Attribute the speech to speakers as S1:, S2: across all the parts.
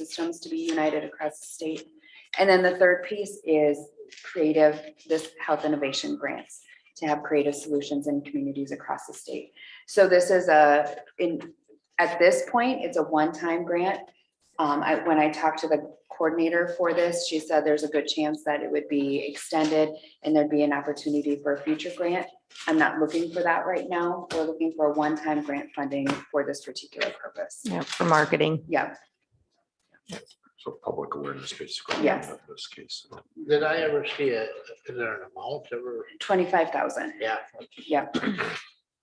S1: systems to be united across the state. And then the third piece is creative, this health innovation grants to have creative solutions in communities across the state. So this is a, in, at this point, it's a one-time grant. Um, I, when I talked to the coordinator for this, she said there's a good chance that it would be extended and there'd be an opportunity for a future grant. I'm not looking for that right now. We're looking for a one-time grant funding for this particular purpose.
S2: Yeah, for marketing.
S1: Yeah,
S3: So public awareness basically.
S1: Yes.
S3: of This case.
S4: Did I ever see a, is there an amount ever?
S1: twenty-five thousand.
S4: Yeah.
S1: Yep.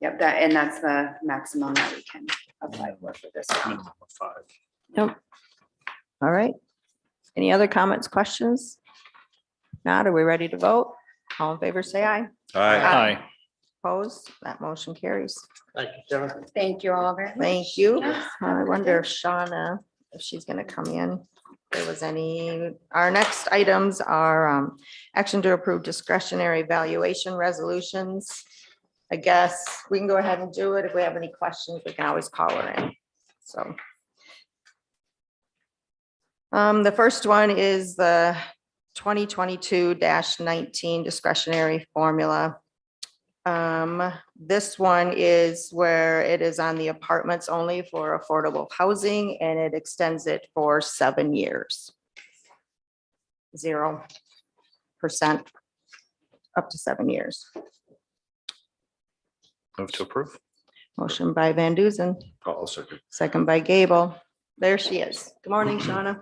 S1: Yep, that, and that's the maximum that we can apply for for this. round.
S2: All right. Any other comments, questions? Not, are we ready to vote? All in favor, say aye.
S1: Aye.
S2: Opposed? That motion carries.
S4: Thank you, Sarah.
S1: Thank you all very much.
S2: Thank you.
S1: Yes,
S2: I wonder if Shauna, if she's gonna come in, if there was any, our next items are um, action to approve discretionary valuation resolutions. I guess we can go ahead and do it. If we have any questions, we can always call her in, so. Um, the first one is the twenty twenty-two nineteen discretionary formula. Um, this one is where it is on the apartments only for affordable housing and it extends it for seven years. Zero percent up to seven years.
S3: Move to approve.
S2: Motion by Van Duzen,
S3: I'll second.
S2: second by Gable. There she is. Good morning, Shauna.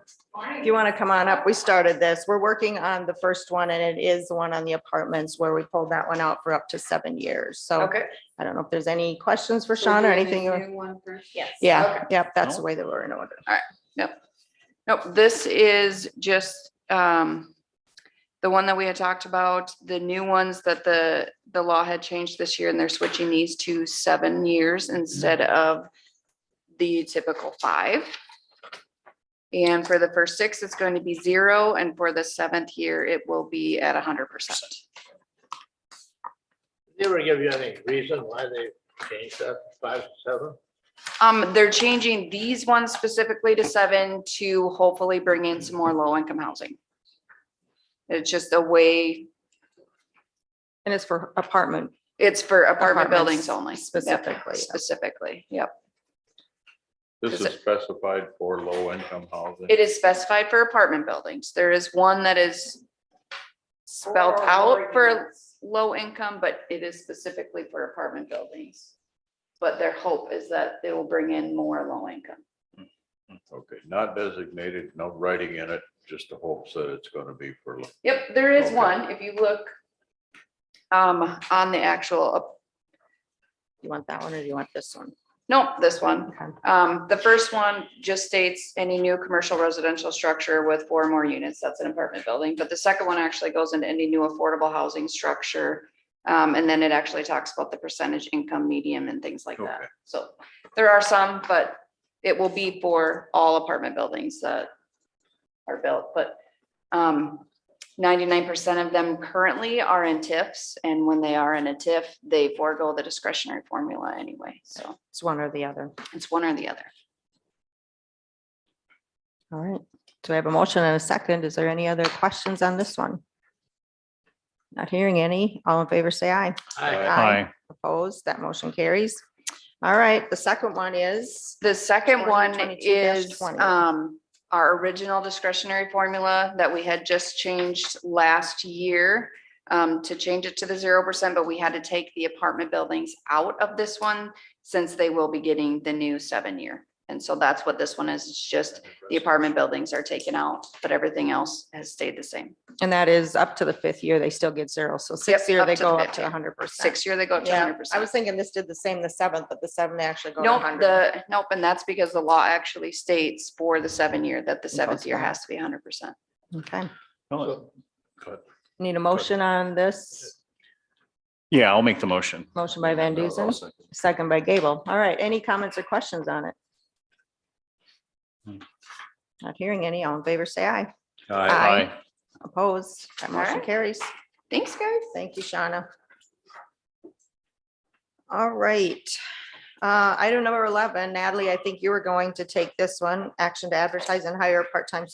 S2: If you want to come on up, we started this. We're working on the first one and it is the one on the apartments where we pulled that one out for up to seven years. So
S1: Okay.
S2: I don't know if there's any questions for Shauna or anything. you want-
S1: Yes.
S2: Yeah, yep, that's the way that we're in order.
S5: Nope, this is just, um, the one that we had talked about, the new ones that the, the law had changed this year and they're switching these to seven years instead of the typical five. And for the first six, it's going to be zero and for the seventh year, it will be at hundred percent.
S4: Did they ever give you any reason why they changed that five to seven?
S5: Um, they're changing these ones specifically to seven to hopefully bring in some more low income housing. It's just a way,
S2: And it's for apartment.
S5: it's for apartment
S2: apartments
S5: buildings only. Yep.
S2: Specifically.
S5: Specifically, yep.
S6: This
S5: Is
S6: is
S5: it-
S6: specified for low income housing.
S5: It is specified for apartment buildings. There is one that is spelled out for low income, but it is specifically for apartment buildings. But their hope is that they will bring in more low income.
S6: Okay, not designated, no writing in it, just the hopes that it's gonna be for. low-
S5: Yep, there is
S6: Okay.
S5: one, if you look um, on the actual, up-
S2: You want that one or do you want this one?
S5: no, this one.
S2: Okay.
S5: Um, the first one just states any new commercial residential structure with four or more units, that's an apartment building, but the second one actually goes into any new affordable housing structure. Um, and then it actually talks about the percentage income medium and things like
S1: uh,
S5: that.
S6: Okay.
S5: So there are some, but it will be for all apartment buildings that are built, but um, ninety-nine percent of them currently are in TIFs, and when they are in a TIF, they forego the discretionary formula anyway, so
S2: It's one or the other.
S5: it's one or the other.
S2: All right. So I have a motion and a second. Is there any other questions on this one? Not hearing any. All in favor, say aye.
S4: I,
S6: Aye.
S2: Opposed, that motion carries. All right, the second one is,
S5: The second one
S2: 2022-20.
S5: is um our original discretionary formula that we had just changed last year. Um, to change it to the zero percent, but we had to take the apartment buildings out of this one since they will be getting the new seven year. And so that's what this one is, it's just the apartment buildings are taken out, but everything else has stayed the same.
S2: and that is up to the fifth year, they still get zero. So sixth year,
S5: up
S2: they
S5: to the
S2: go up
S5: fifth
S2: to
S5: year.
S2: hundred percent.
S5: Six year, they go up to
S2: Yeah,
S5: hundred
S2: I
S5: percent.
S2: was thinking this did the same the seventh, but the seven they actually go to
S5: Nope,
S2: hundred.
S5: the, nope, and that's because the law actually states for the seven year that the
S2: goes
S5: seventh year
S2: back.
S5: has to be hundred percent.
S2: Okay,
S4: So,
S2: need a motion on this?
S7: Yeah, I'll make the motion.
S2: Motion by Van Duzen,
S3: I'll second.
S2: second by Gable. All right, any comments or questions on it?
S7: Hmm.
S2: Not hearing any. All in favor, say aye.
S3: Aye.
S2: Opposed, that
S5: All
S2: motion
S5: right.
S2: carries.
S5: Thanks, guys.
S2: Thank you, Shauna. All right, Uh, item number eleven, Natalie, I think you were going to take this one, action to advertise and hire a part-time